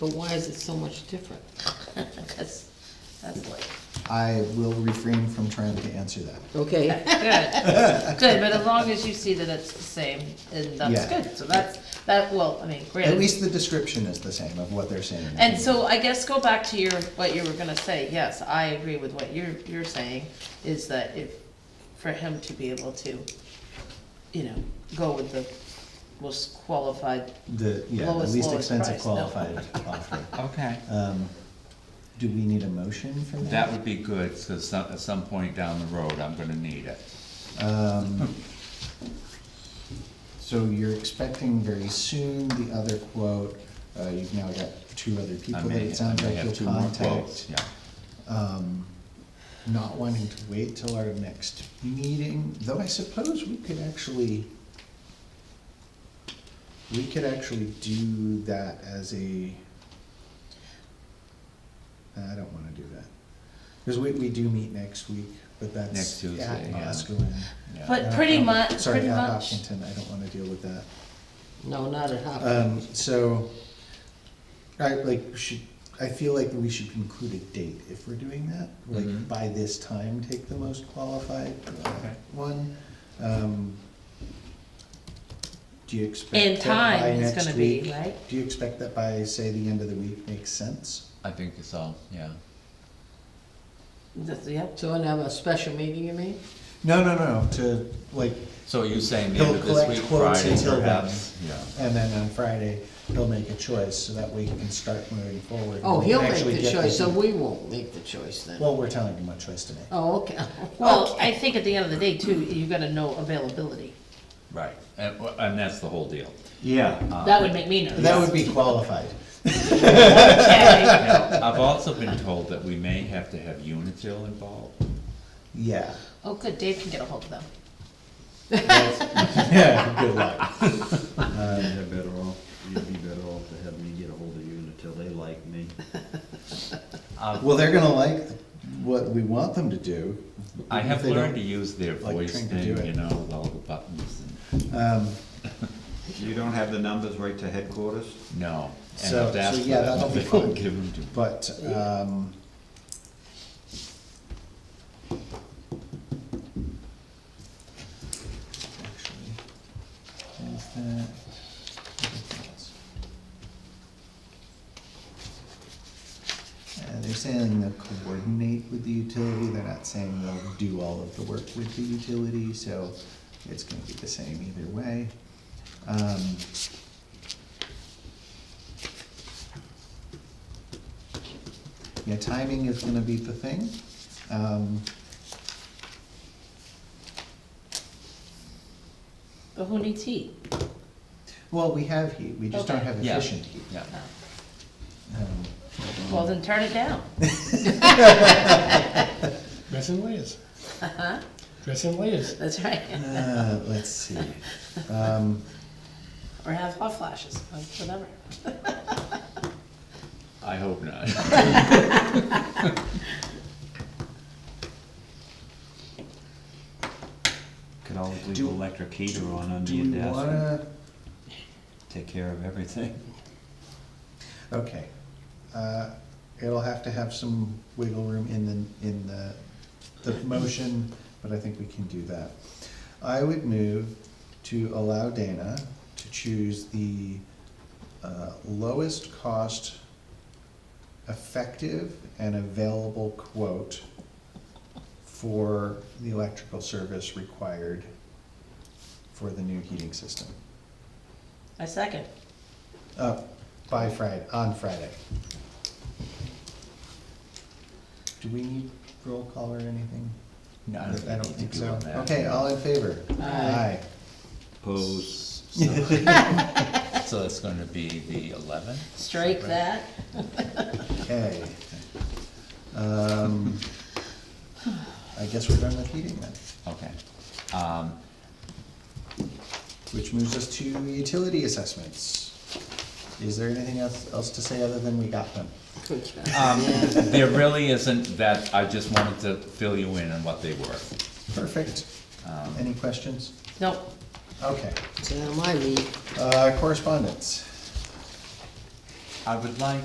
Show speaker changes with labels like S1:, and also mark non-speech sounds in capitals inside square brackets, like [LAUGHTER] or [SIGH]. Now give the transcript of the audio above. S1: But why is it so much
S2: [LAUGHS]
S1: different? That's, that's like,
S3: I will refrain from trying to answer that.
S1: okay,
S2: Good, [LAUGHS] good, but as long as you see that it's the same, and that's
S3: Yeah.
S2: good, so that's, that, well, I mean, great.
S3: At least the description is the same of what they're saying.
S2: And so I guess go back to your, what you were gonna say, yes, I agree with what you're, you're saying, is that if, for him to be able to, you know, go with the most qualified,
S3: The, yeah, the
S2: Lowest,
S3: least
S2: lowest
S3: expensive
S2: price, no.
S3: qualified offer.
S4: Okay,
S3: Um, do we need a motion for
S4: that
S3: that?
S4: would be good, so some, at some point down the road, I'm gonna need it. Oh.
S3: Um, so you're expecting very soon the other quote, uh, you've now got two other
S4: I
S3: people that
S4: may,
S3: it
S4: I
S3: sounds
S4: may
S3: like
S4: have two
S3: you'll
S4: more quotes,
S3: contact.
S4: yeah.
S3: Um, not wanting to wait till our next meeting, though I suppose we could actually, we could actually do that as a, I don't wanna do that. Cause we, we do meet next week, but
S4: Next
S3: that's
S4: Tuesday,
S3: at
S4: yeah.
S3: Osgood.
S4: yeah.
S2: But- pretty
S3: Um,
S2: mu-
S3: Sorry,
S2: pretty
S3: at
S2: much.
S3: Hopkinton, I don't wanna deal with that.
S1: no, not at Hopkins.
S3: Um, so, I, like, should, I feel like we should include a date if we're doing that. Like,
S4: Mhm.
S3: by this time, take the most qualified uh,
S4: Okay.
S3: one. Um, Do you expect
S2: and
S3: that by
S2: time is
S3: next
S2: gonna be,
S3: week-
S2: right?
S3: Do you expect that by, say, the end of the week makes sense?
S4: I think it's all, yeah.
S2: That's- Yep,
S1: So and have a special meeting, you mean?
S3: No, no, no, to, like,
S4: So are you saying the
S3: He'll
S4: end of this
S3: collect
S4: week,
S3: quotes
S4: Friday
S3: until then.
S4: perhaps? Yeah.
S3: and then on Friday, he'll make a choice, so that way he can start moving forward. and
S1: Oh,
S3: we can
S1: he'll make
S3: actually
S1: the
S3: get
S1: choice, so
S3: people-
S1: we won't make the choice then.
S3: Well, we're telling him what choice to make.
S1: Oh, okay. [LAUGHS]
S2: well, I think at the end of the day too, you gotta know availability,
S4: Right, and, well, and that's the whole deal.
S3: Yeah.
S4: Uh,
S2: that would make me nervous.
S3: Ah, That would be qualified. [LAUGHS]
S2: Okay.
S4: Now, I've also been told that we may have to have Unitil involved.
S3: Yeah.
S2: Oh, good, Dave can get a hold of them.
S3: Yeah, [LAUGHS] good luck.
S5: They're better off, you'd be better off to have me get a hold of you until they like me.
S3: Well, they're gonna like what we want them to do.
S4: I
S3: even if
S4: have
S3: they don't-
S4: learned to use their
S3: like
S4: voice
S3: trying to
S4: thing,
S3: do it.
S4: you know, with all the buttons and,
S3: Um,
S5: You don't have the numbers right to headquarters?
S4: no. And
S3: So-
S4: I've asked
S3: so
S4: for
S3: yeah,
S4: that,
S3: that'll
S4: but
S3: be
S4: they won't
S3: fun.
S4: Give them to me.
S3: but, um, actually, is that? Uh, they're saying they'll coordinate with the utility, they're not saying they'll do all of the work with the utility, so it's gonna be the same either way. Um, Yeah, timing is gonna be the thing. Um,
S2: But who needs heat?
S3: well, we have heat, we just don't
S2: Okay.
S3: have
S4: Yeah.
S3: efficient heat.
S4: Yeah,
S3: Um,
S2: Well, then turn it down.
S6: Dress in layers. Dress in layers.
S2: That's right.
S3: uh, let's see, um,
S2: Or have hot flashes, or whatever.
S4: I hope not.
S5: Could always leave
S3: Do-
S5: electric heater on under
S3: do we
S5: your desk, and
S3: wanna,
S5: take care of everything.
S3: okay. Uh, it'll have to have some wiggle room in the, in the, the motion, but I think we can do that. I would move to allow Dana to choose the, uh, lowest cost effective and available quote for the electrical service required for the new heating system.
S2: I second.
S3: Uh, by Friday, on Friday. Do we need roll call or anything?
S4: No, I don't think we need to do
S3: so.
S4: on that.
S3: Okay, all in favor? Aye.
S5: Pose.
S4: So [LAUGHS] so it's gonna be the eleventh?
S2: Strike that.
S3: Okay. Um, I guess we're done with heating then,
S4: Okay. Um,
S3: which moves us to utility assessments. Is there anything else, else to say other than we got them?
S1: Good job.
S4: um, there really isn't that, I just wanted to fill you in on what they were.
S3: Perfect.
S4: Um,
S3: Any questions?
S2: Nope.
S3: Okay.
S1: So now my lead.
S3: Uh, correspondence.
S4: I would like